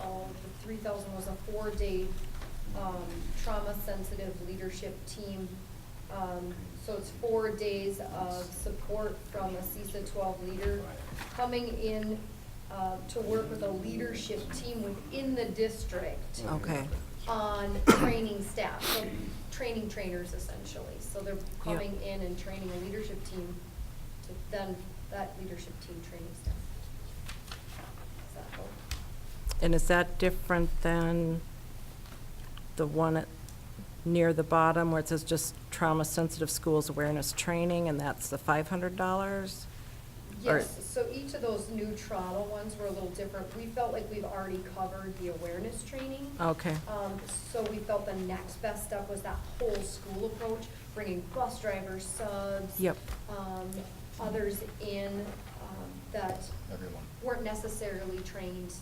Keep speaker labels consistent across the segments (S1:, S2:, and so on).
S1: Um, three thousand was a four-day, um, trauma-sensitive leadership team. Um, so it's four days of support from a CISA twelve leader coming in, uh, to work with a leadership team within the district
S2: Okay,
S1: on training staff, so training trainers essentially. So they're coming in and training a leadership team to then, that leadership team training staff. Does that help?
S2: and is that different than the one at, near the bottom where it says just trauma-sensitive schools awareness training, and that's the five hundred dollars? Or-
S1: Yes, so each of those new trauma ones were a little different. We felt like we've already covered the awareness training.
S2: Okay,
S1: Um, so we felt the next best step was that whole school approach, bringing bus drivers, subs.
S2: Yep.
S1: Um, others in, um, that.
S3: Everyone.
S1: Weren't necessarily trained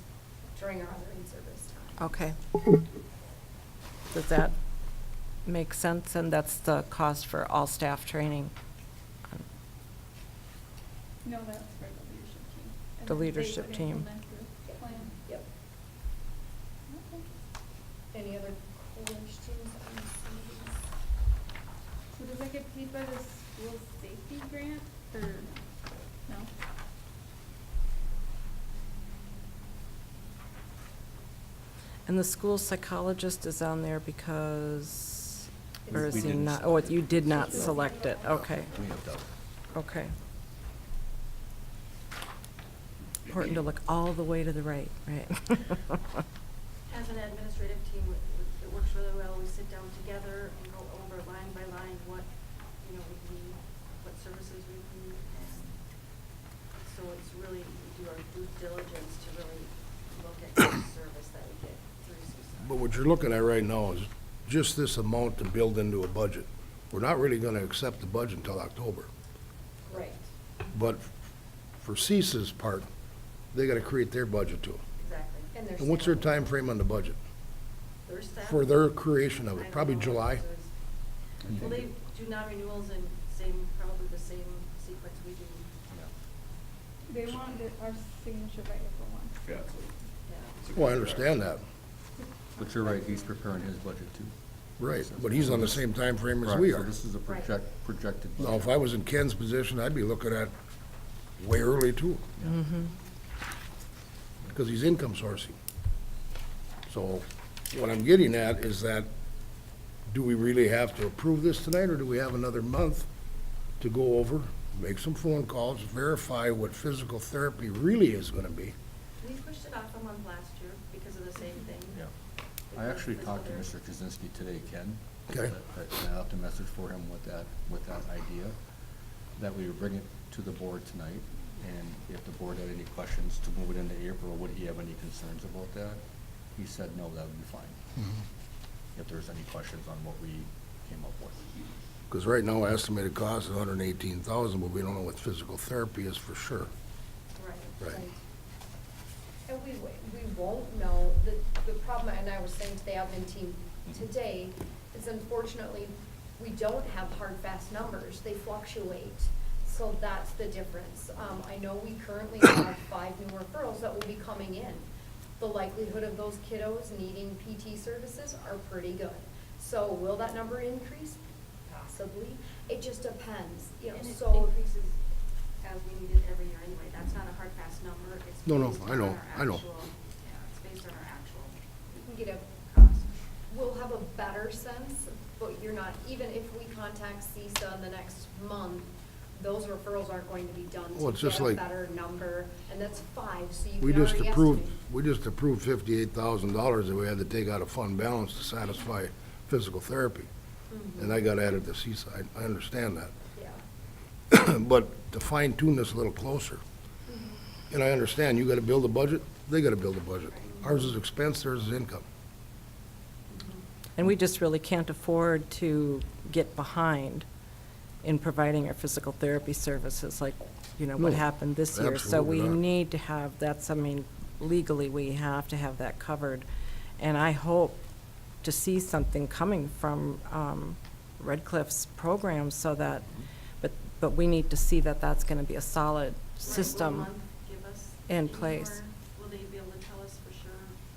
S1: during our other in-service time.
S2: okay. Does that make sense? And that's the cost for all staff training?
S4: No, that's for the leadership team. And
S2: The
S4: then they
S2: leadership
S4: would
S2: team.
S4: implement the
S1: Yep.
S4: plan.
S1: Yep.
S4: Okay.
S1: Any other questions on these?
S4: So does that get paid by the school safety grant or no?
S2: And the school psychologist is on there because, or
S1: It's-
S2: is
S1: We
S2: he
S1: didn't
S2: not,
S3: select
S2: oh,
S3: it.
S2: you did not
S4: She was.
S2: select it, okay,
S3: We have double.
S2: okay. Important to look all the way to the right, right?
S5: As an administrative team, it- it works really well. We sit down together and go over line by line what, you know, we need, what services we need. And so it's really, we do our due diligence to really look at the service that we get through CISA.
S6: But what you're looking at right now is just this amount to build into a budget. We're not really gonna accept the budget until October.
S1: Right,
S6: But for CISA's part, they gotta create their budget too.
S5: Exactly.
S1: and there's.
S6: And what's their time frame on the budget?
S5: Their staff-
S6: For their creation
S5: I
S6: of
S5: don't
S6: it, probably
S5: know what
S6: July?
S5: theirs is. Well, they do non-renewals in same, probably the same sequence we do.
S4: They want our signature right before one.
S7: Yeah.
S5: Yeah.
S6: Well, I understand that,
S3: But you're right, he's preparing his budget too.
S6: right, but he's on the same time frame as we
S3: Correct,
S6: are.
S3: So this is a
S5: Right.
S3: project, projected.
S6: Now, if I was in Ken's position, I'd be looking at way early too. Because he's income sourcing. So what I'm getting at is that, do we really have to approve this tonight, or do we have another month to go over, make some phone calls, verify what physical therapy really is gonna be?
S5: We pushed it off a month last year because of the same thing.
S3: Yeah. I actually talked to Mr. Kaczynski today, Ken.
S6: Okay.
S3: I- I left a message for him with that, with that idea, that we would bring it to the board tonight. And if the board had any questions to move it into April, would he have any concerns about that? He said, no, that would be fine. If there's any questions on what we came up with.
S6: Because right now, estimated cost is hundred and eighteen thousand, but we don't know what physical therapy is for sure.
S5: Right.
S6: Right.
S1: And we, w- we won't know, the, the problem, and I was saying to the admin team today, is unfortunately, we don't have hard, fast numbers, they fluctuate. So that's the difference. Um, I know we currently have five new referrals that will be coming in. The likelihood of those kiddos needing PT services are pretty good. So will that number increase? Possibly, it just depends, you know,
S5: And it
S1: so.
S5: increases as we need it every year anyway, that's not a hard fast number, it's
S6: No, no,
S5: based
S6: I
S5: on
S6: know,
S5: our
S6: I know.
S5: actual- Yeah, it's based on our actual
S1: You know,
S5: cost.
S1: we'll have a better sense, but you're not, even if we contact CISA in the next month, those referrals aren't going to be done
S6: Well,
S1: to
S6: it's just
S1: get a
S6: like-
S1: better number, and that's five, so you
S6: We
S1: can
S6: just
S1: already
S6: approved,
S1: estimate.
S6: we just approved fifty-eight thousand dollars that we had to take out of fund balance to satisfy physical therapy. And I got added to Seaside, I understand that.
S1: Yeah,
S6: But to fine tune this a little closer, and I understand, you gotta build a budget, they gotta build a budget. Ours is expense, theirs is income.
S2: And we just really can't afford to get behind in providing our physical therapy services, like, you know, what
S6: No,
S2: happened this year. So we
S6: absolutely not.
S2: need to have, that's, I mean, legally, we have to have that covered. And I hope to see something coming from um, Red Cliff's program so that, but, but we need to see that that's going to be a solid
S5: Right, will
S2: system.
S5: one give us
S2: in
S5: any
S2: place.
S5: more